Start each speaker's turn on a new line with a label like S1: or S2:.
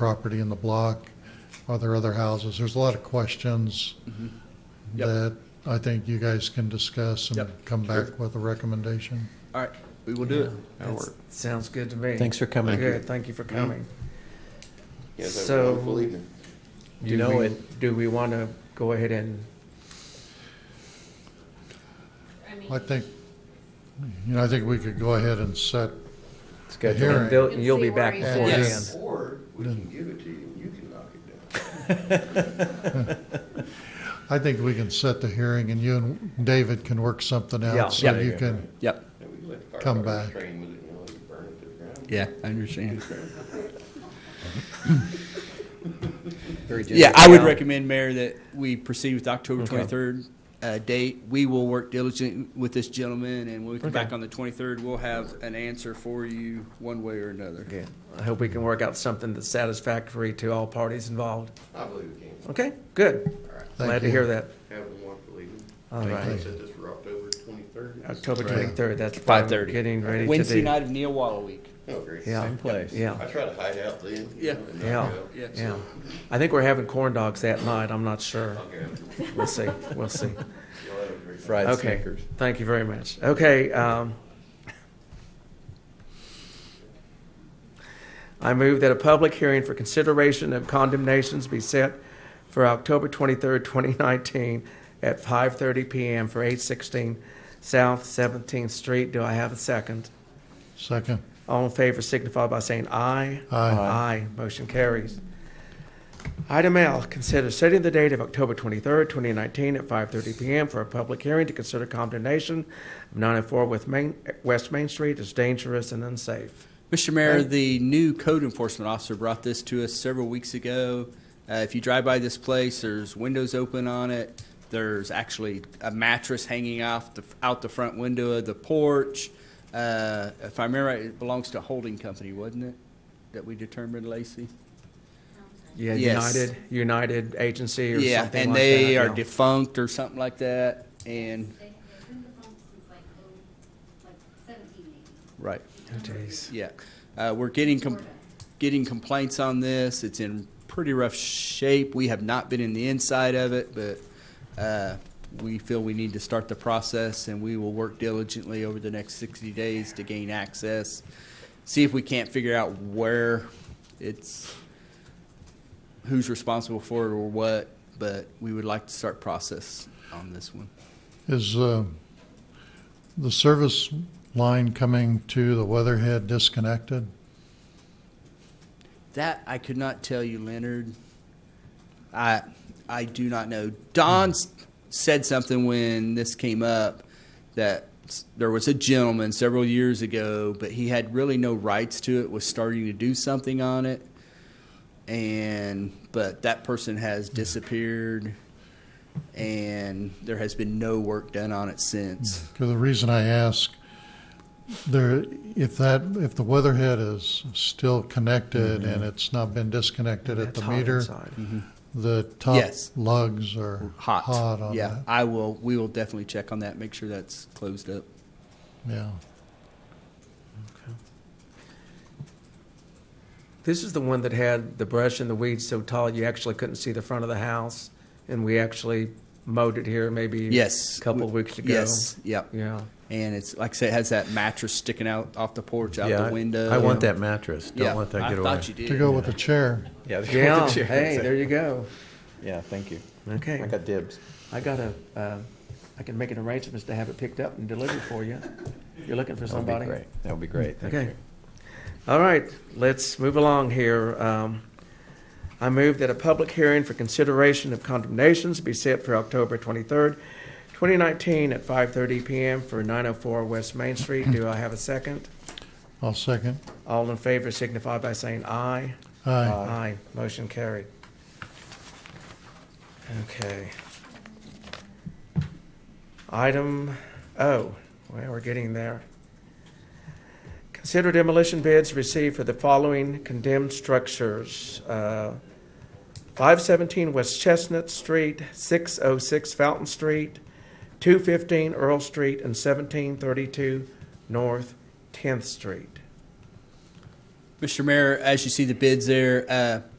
S1: property in the block? Are there other houses? There's a lot of questions
S2: Yep.
S1: that I think you guys can discuss and
S2: Yep,
S1: come
S2: sure.
S1: back with a recommendation.
S2: All right, we will do it.
S3: That'll
S4: That's-
S3: work.
S4: Sounds good to me.
S5: Thanks for coming.
S4: Good, thank you for coming.
S3: You guys have a
S4: So-
S3: wonderful evening.
S5: You
S4: Do
S5: know
S4: we-
S5: it.
S4: Do we want to go ahead and,
S1: I think, you know, I think we could go aahead and set,
S5: Schedule.
S1: Hearing.
S4: and Bill-
S6: And
S4: you'll
S6: see
S4: be
S6: where
S4: back
S6: he
S4: before
S5: sits.
S4: then?
S3: Or we
S4: Mm.
S3: can give it to you and you can knock it down.
S1: I think we can set the hearing and you and David can work something
S4: Yeah,
S1: out so
S2: yeah.
S1: you can,
S2: Yep.
S3: And we can let the
S1: Come
S3: firefighters
S1: back.
S3: train with it, you know, you burn it to the ground.
S2: Yeah, I understand.
S3: Very
S2: Yeah, I would
S4: Yeah.
S2: recommend, Mayor, that we proceed with October
S4: Okay.
S2: 23rd uh, date. We will work diligently with this gentleman, and when we come
S4: Okay.
S2: back on the 23rd, we'll have an answer for you one way or another.
S4: Good. I hope we can work out something that's satisfactory to all parties involved.
S3: I believe it can.
S4: Okay, good.
S3: All right.
S1: Thank
S4: Glad to
S1: you.
S4: hear that.
S3: Have a wonderful evening.
S4: All
S3: Thank you.
S4: right.
S3: Set this for October twenty-third.
S4: October
S1: Right.
S4: 23rd, that's what I'm
S2: 5:30.
S4: getting ready to do.
S2: Wednesday night of Neowalla Week.
S3: Oh, great.
S4: Yeah,
S5: Same place.
S4: yeah,
S3: I try to hide out then. you
S2: Yeah.
S3: know, and
S4: Yeah.
S3: knock it out.
S2: Yeah.
S4: yeah. I think we're having corn dogs that night, I'm not sure.
S3: Okay.
S4: We'll see, we'll see.
S3: Y'all have a great night.
S5: Fried
S4: Okay,
S5: Snickers.
S4: thank you very much. Okay, um, I move that a public hearing for consideration of condemnations be set for October twenty-third, twenty nineteen at five thirty PM for eight sixteen South Seventeenth Street. Do I have a second?
S1: second.
S4: All in favor signify by saying aye.
S1: Aye.
S4: Aye. Motion carries. Item L, consider setting the date of October 23rd, 2019 at 5:30 PM for a public hearing to consider condemnation of 904 with Main- West Main Street as dangerous and unsafe.
S2: Mr. Mayor, the new code enforcement officer brought this to us several weeks ago. Uh, if you drive by this place, there's windows open on it. There's actually a mattress hanging off the, out the front window of the porch. Uh, if I remember right, it belongs to a holding company, wasn't it? That we determined, Lacey?
S4: Yeah,
S2: Yes.
S4: United, United Agency or something
S2: Yeah,
S4: like that.
S2: and they are
S4: yeah.
S2: defunct or something like that. And,
S6: They, they've been defunct since like, oh, like seventeen eighty.
S2: right.
S4: Oh, Jeez.
S2: Yeah, uh, we're getting, com-
S6: Florida.
S2: getting complaints on this. It's in pretty rough shape. We have not been in the inside of it, but uh, we feel we need to start the process, and we will work diligently over the next 60 days to gain access. See if we can't figure out where it's, who's responsible for it or what, but we would like to start process on this one.
S1: Is uh, the service line coming to the Weatherhead disconnected?
S2: That I could not tell you, Leonard. I I do not know. Don s said something when this came up that s- there was a gentleman several years ago, but he had really no rights to it. Was starting to do something on it, and but that person has disappeared, and there has been no work done on it since.
S1: 'Cause the reason I ask, there, if that, if the Weatherhead is still connected and it's not been disconnected at
S4: Mm-hmm. That's
S1: the
S4: hot
S1: meter,
S4: inside.
S2: Mm-hmm.
S1: the top
S2: Yes.
S1: lugs are
S2: Hot,
S1: hot on
S2: yeah.
S1: that.
S2: I will. We will definitely check on that. Make sure that's closed up.
S1: Yeah.
S4: This is the one that had the brush and the weeds so tall you actually couldn't see the front of the house, and we actually mowed it here maybe
S2: Yes,
S4: a couple of
S2: we-
S4: weeks ago.
S2: Yes, yep.
S4: Yeah.
S2: And it's like I said, it has that mattress sticking out off the porch, out
S5: Yeah, I-
S2: the window.
S5: I want that mattress. Don't let that get
S2: I
S5: away.
S2: thought you did.
S1: To go with the chair.
S5: Yeah. they go
S4: Yeah,
S5: with the chair.
S4: hey, there you go.
S5: Yeah, thank you.
S4: Okay.
S5: I got dibs.
S4: I got a, uh, I can make an arrangements to have it picked up and delivered for you. You're looking for
S5: That would be
S4: somebody?
S5: great. That would be great. Thank
S4: Okay.
S5: you.
S4: All right, let's move along here. Um, I move that a public hearing for consideration of condemnations be set for October twenty-third, twenty nineteen at five thirty PM for nine oh four West Main Street. Do I have a second?
S1: I'll second.
S4: All in favor signify by saying aye.
S1: Aye.
S4: Aye, motion carried. Okay. Item O, well, we're getting there. Consider demolition bids received for the following condemned structures. Uh, 517 West Chestnut Street, 606 Fountain Street, 215 Earl Street, and 1732 North 10th Street.
S2: Mr. Mayor, as you see the bids there, uh,